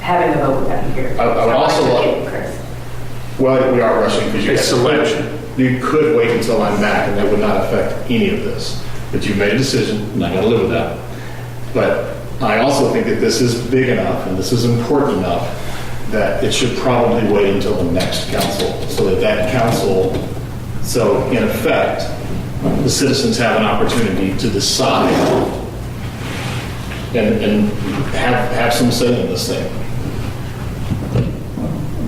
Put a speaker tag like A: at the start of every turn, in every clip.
A: having a vote without you here.
B: I- I would
A: So
B: also
A: took
B: love-
A: it, Chris.
B: Well, we are rushing because you.
C: It's selection.
B: You could wait until I'm back and that would not affect any of this. But you've made a decision and I'm going to live with that. But I also think that this is big enough and this is important enough that it should probably wait until the next council so that that council, so in effect, the citizens have an opportunity to decide and, and have, have some say in this thing.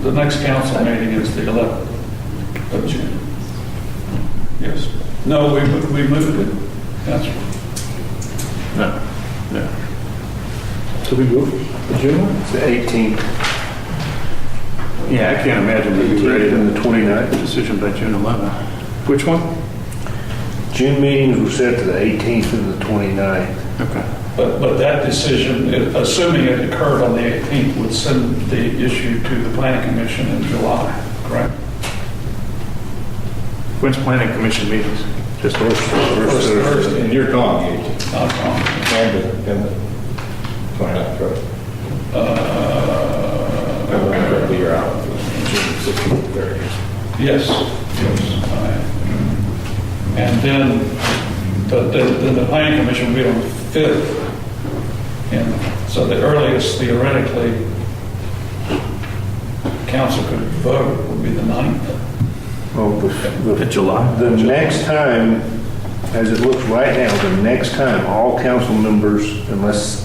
C: The next council meeting is the 11th of June. Yes. No, we, mo- we moved it. That's right. No, no.
B: So we move to June?
D: It's the 18th.
C: Yeah, I can't imagine we'd be ready on the 29th, decision by June 11th. Which one?
D: June meetings were set to the 18th and the 29th.
C: Okay. But, but that decision, i- assuming it occurred on the 18th, would send the issue to the planning commission in July, correct?
E: When's planning commission meetings?
D: Just first, first Thursday.
B: And you're gone, Gage.
C: Not wrong.
B: And the, and the 29th, right? Uh. You're out. June 16th, 30th.
C: Yes, yes. I am. And then, the- the- then the planning commission will be on the 5th. And so the earliest theoretically council could vote would be the 9th.
D: Well, Oh, the- the-
E: July.
D: The next time, as it looks right now, the next time, all council members, unless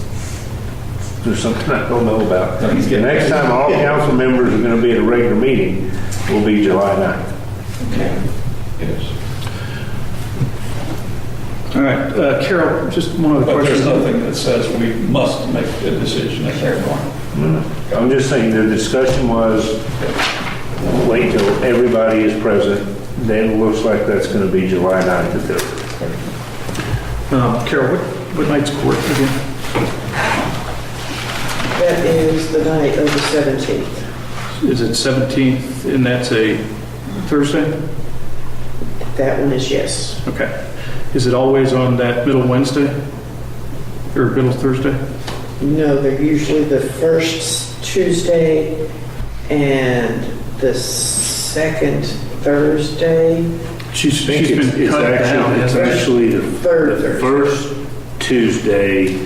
D: there's something I don't know about,
B: No, he's
D: the
B: getting-
D: next time all council members are going to be at a regular meeting will be July 9th.
C: Yes.
E: All right, uh, Carol, just one other
D: Oh,
C: But there's
E: question.
C: nothing that says we must make a decision at that point.
D: I'm just saying, the discussion was, wait till everybody is present, then it looks like that's going to be July 9th at the,
E: Um, Carol, what, what night's court again?
F: That is the night of the 17th.
E: Is it 17th, and that's a Thursday?
F: That one is yes.
E: Okay. Is it always on that middle Wednesday? Or middle Thursday?
F: No, they're usually the first Tuesday and the second Thursday,
E: She's,
D: I think
E: she's
D: it's
E: been
D: it's
E: cut down,
D: actually, it's
E: hasn't she?
D: actually the
F: third
D: the
F: Thursday.
D: first Tuesday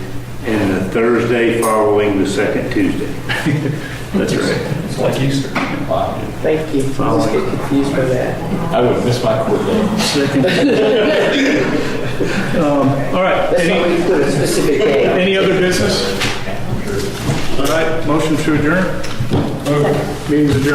D: and the Thursday following the second Tuesday.
E: That's right.
C: It's like Easter.
F: Thank you. I always get confused by that.
B: I would miss my court date.
E: Second. Um, All right.
F: That's why
E: Any,
F: we put a specific day.
E: any other business? All right, motion to adjourn? Meeting's adjourned.